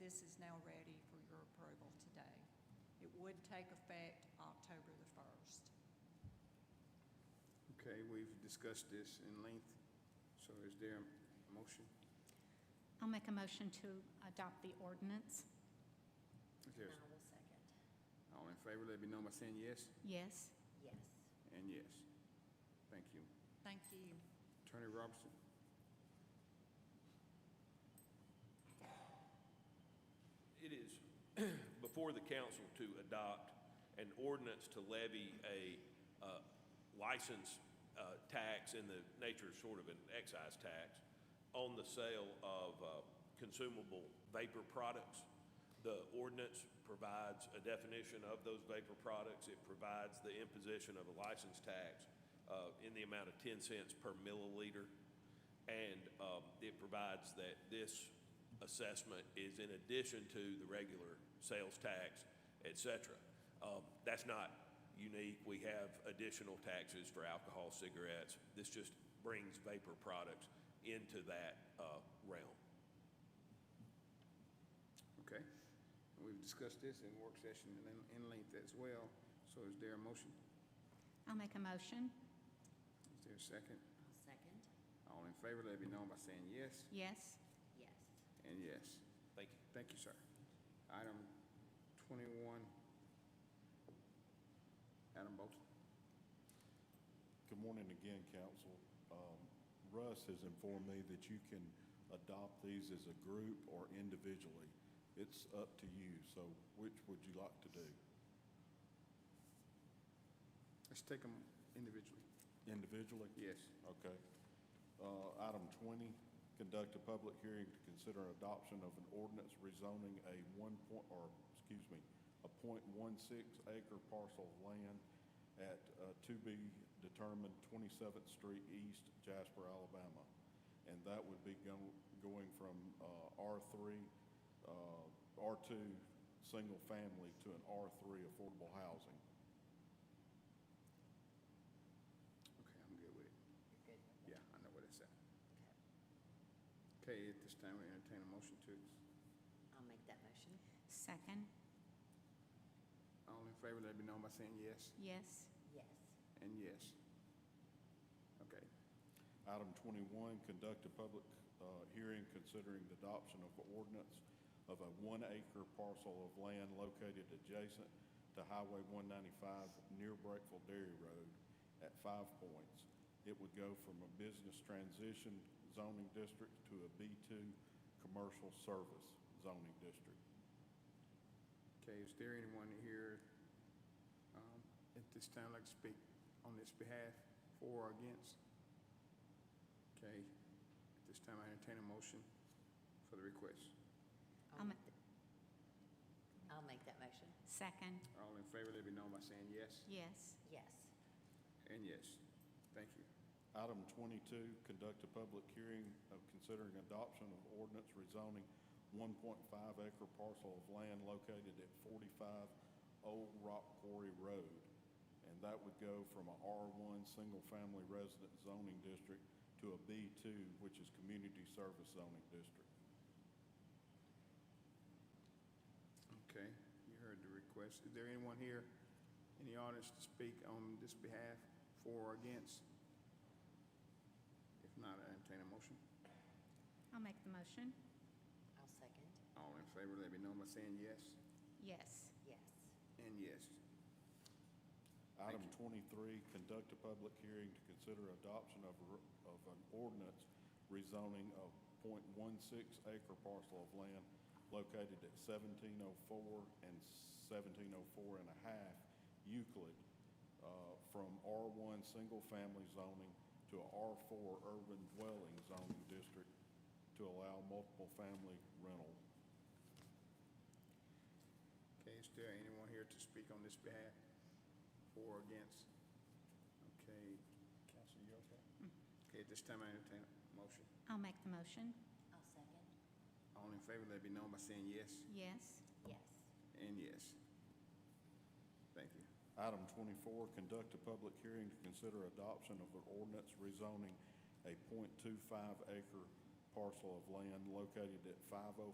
this is now ready for your approval today. It would take effect October the 1st. Okay, we've discussed this in length, so is there a motion? I'll make a motion to adopt the ordinance. If there's- I will second. All in favor, let me know by saying yes Yes. Yes. and yes. Thank you. Thank you. Attorney Robertson? It is before the council to adopt an ordinance to levy a uh, license uh, tax in the nature of sort of an excise tax on the sale of uh, consumable vapor products. The ordinance provides a definition of those vapor products. It provides the imposition of a license tax uh, in the amount of 10 cents per milliliter. And um, it provides that this assessment is in addition to the regular sales tax, et cetera. Um, That's not unique. We have additional taxes for alcohol, cigarettes. This just brings vapor products into that uh, realm. Okay. And We've discussed this in work session and in- in length as well, so is there a motion? I'll make a motion. Is there a second? I'll second. All in favor, let me know by saying yes Yes. Yes. and yes. Thank you. Thank you, sir. Item twenty-one. Adam Bolton? Good morning again, council. Um, Russ has informed me that you can adopt these as a group or individually. It's up to you, so which would you like to do? Let's take them individually. Individually? Yes. Okay. Uh, Item 20, conduct a public hearing to consider adoption of an ordinance rezoning a one point, or, excuse me, a .16 acre parcel of land at uh, to be determined 27th Street East, Jasper, Alabama. And that would be go- going from uh, R3, uh, R2, single family to an R3 affordable housing. Okay, I'm good with it. You're good with Yeah, I know what it's at. that? Okay. Okay, at this time, we entertain a motion to, I'll make that motion. Second. all in favor, let me know by saying yes Yes. Yes. and yes. Okay, Item 21, conduct a public uh, hearing considering the adoption of ordinance of a one-acre parcel of land located adjacent to Highway 195 near Breakville Dairy Road at Five Points. It would go from a business transition zoning district to a B2 commercial service zoning district. okay, is there anyone here, um, at this time, like to speak on this behalf, for or against? Okay, at this time, I entertain a motion for the request. I'll Um, make, I'll make that motion. second. All in favor, let me know by saying yes Yes. Yes. and yes. Thank you. Item 22, conduct a public hearing of considering adoption of ordinance rezoning 1.5 acre parcel of land located at 45 Old Rock Quarry Road. And that would go from a R1 Single Family Resident Zoning District to a B2, which is Community Service Zoning District. Okay, you heard the request. Is there anyone here in the audience to speak on this behalf, for or against? If not, I entertain a motion. I'll make the motion. I'll second. All in favor, let me know by saying yes Yes. Yes. and yes. Item twenty-three, conduct a public hearing to consider adoption of, a- of an ordinance rezoning a 0.16 acre parcel of land located at seventeen oh four and 1704 1/2 Euclid, uh, from R one single-family zoning to a R four urban dwelling zoning district to allow multiple-family rental. Okay, is there anyone here to speak on this behalf, for or against? Okay, Counsel, you okay? Okay, at this time, I entertain a motion. I'll make the motion. I'll second. All in favor, let me know by saying yes Yes. Yes. and yes. Thank you. Item twenty-four, conduct a public hearing to consider adoption of an ordinance rezoning a 0.25 acre parcel of land located at 504